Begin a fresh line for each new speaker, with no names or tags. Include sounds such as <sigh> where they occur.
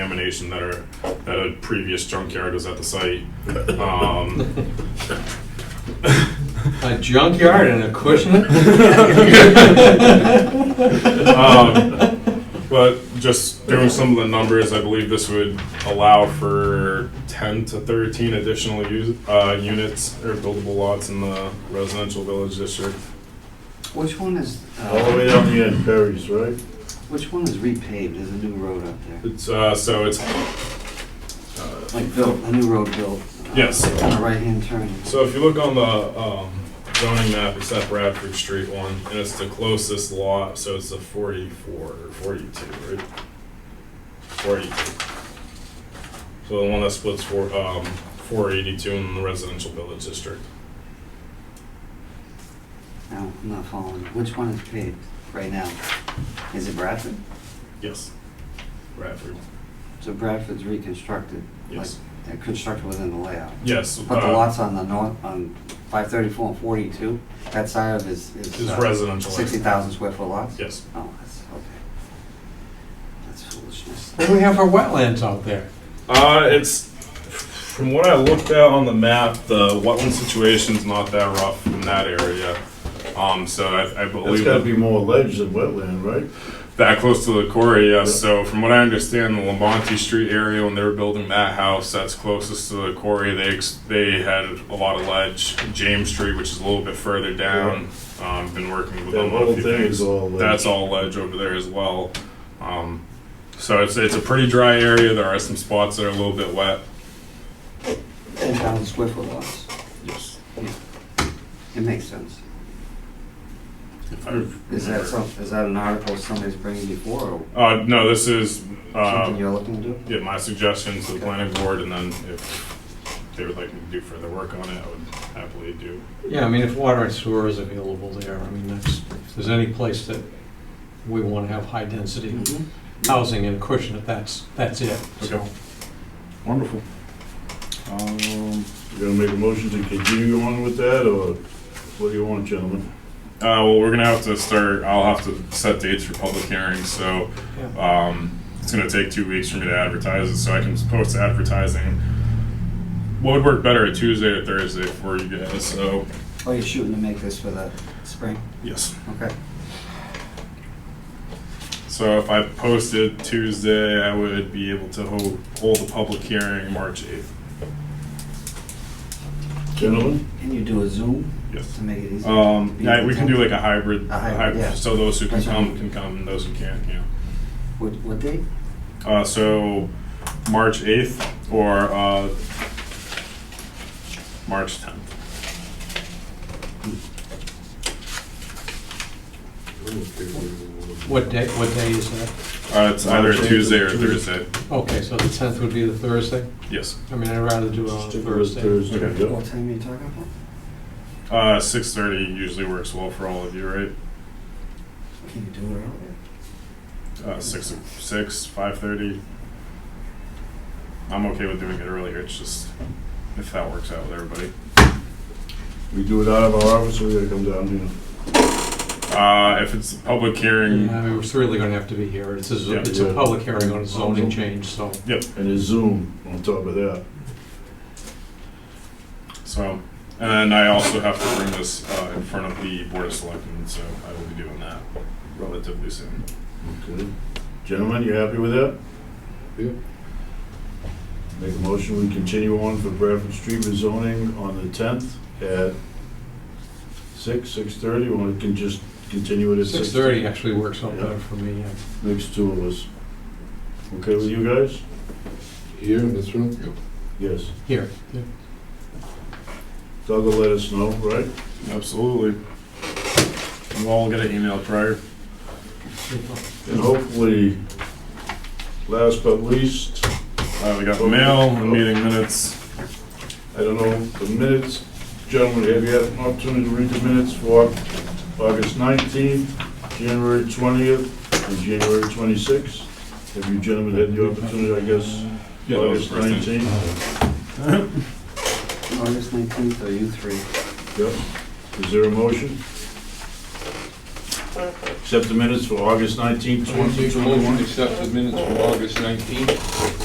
contamination that are, that a previous junkyard was at the site. Um, <laughs>
A junkyard and a <laughs> cushion?
Um, But just doing some of the numbers, I believe this would allow for ten to thirteen additional use, uh, units or buildable lots in the residential village district.
Which one is, uh,
All the way down the end, Perry's, right?
which one is repaved? There's a new road up there.
It's, uh, so it's,
Like built, a new road built. uh,
Yes.
On a right-hand turn.
so if you look on the, um, zoning map, it's that Bradford Street one, and it's the closest lot, so it's a forty-four or forty-two, right? Forty-two. So the one that splits for, um, four eighty-two in the residential village district.
No, I'm not following. Which one is paved right now? Is it Bradford?
Yes. Bradford.
So Bradford's reconstructed, like,
Yes.
they're constructed within the layout.
Yes.
But the
uh,
lots on the north, on 534 and 42, that side of is is.
Is
uh,
residential.
60,000 square foot lots?
Yes.
Oh, that's, okay. That's foolishness.
What do we have for wetlands out there?
Uh, it's, from what I looked at on the map, the wetland situation's not that rough in that area. Um, so I, I
That's
believe
gotta
that,
be more ledge than wetland, right?
that close to the quarry, yes. So from what I understand, the Lamonti Street area, when they were building that house, that's closest to the quarry, they, ex- they had a lot of ledge. James Street, which is a little bit further down, um, been working with
That
them on a
whole
few
thing
things.
is all ledge.
That's all ledge over there as well. Um, so it's it's a pretty dry area. There are some spots that are a little bit wet.
10,000 square foot lots.
Yes.
It makes sense.
If I remember.
Is that some, is that an article somebody's bringing before or
Uh, no, this is
something
uh,
you're looking to do?
yeah, my suggestion to the planning board, and then if they would like me to do further work on it, I would happily do.
Yeah, I mean, if water and sewer is available there, I mean, that's, if there's any place that we want to have high-density
Mhm.
housing and cushion it, that's, that's it. So,
Wonderful.
Um, you gonna make a motion to continue on with that, or what do you want, gentlemen?
Uh, well, we're gonna have to start. I'll have to set dates for public hearings. So
yeah.
Um, it's going to take two weeks for me to advertise it, so I can post advertising. What would work better, a Tuesday or Thursday for you guys? So,
Oh, you're shooting to make this for the spring?
yes.
Okay.
So if I posted Tuesday, I would be able to hold, hold a public hearing March 8th.
Gentlemen?
Can you do a Zoom
Yes.
to make it easier?
Um, yeah, we can do like a hybrid,
A hybrid,
hy-
yeah.
so those who can
That's fine.
come can come, and those who can't, yeah.
What, what date?
Uh, so March 8th or uh, March 10th.
What day, what day is that?
Uh, it's either
March 8th
a
or
Tuesday or a
Tuesday.
Thursday.
Okay, so the 10th would be the Thursday?
Yes.
I mean, I'd rather do it on a
Stick with
Thursday.
Thursday,
Okay.
yeah.
What time are you talking about?
Uh, six thirty usually works well for all of you, right?
Can you do it earlier?
Uh, six, six, five thirty. I'm okay with doing it earlier. It's just if that works out with everybody.
We do it out of our office, or we gotta come down here?
Uh, if it's a public
Mm-hmm.
hearing,
Yeah, I mean, we're certainly going to have to be here. It's a,
Yeah.
it's a public hearing on a zoning change, so.
And a Zoom on top of that.
so and then I also have to bring this uh, in front of the board of selectmen, so I will be doing that relatively soon.
Okay. Gentlemen, you happy with that? Yeah. Make a motion, we continue on for Bradford Street rezoning on the tenth at six, six-thirty, or we can just continue it at six?
6:30 actually works out better for me, yeah.
Next two of us. Okay with you guys?
Here in this room?
Yes.
Here. yeah.
Doug will let us know, right?
Absolutely. We'll all get an email prior.
And hopefully, last but least,
Uh, we got the mail, the meeting minutes.
I don't know, the minutes, gentlemen, have you had an opportunity to read the minutes for August 19th, January 20th, and January 26th? Have you gentlemen had the opportunity, I guess,
that was
August
the first thing.
19th?
August 19th, or you three?
Yep. Is there a motion? Accept the minutes for August 19th,
Twenty-one,
2021?
accept the minutes from August nineteenth.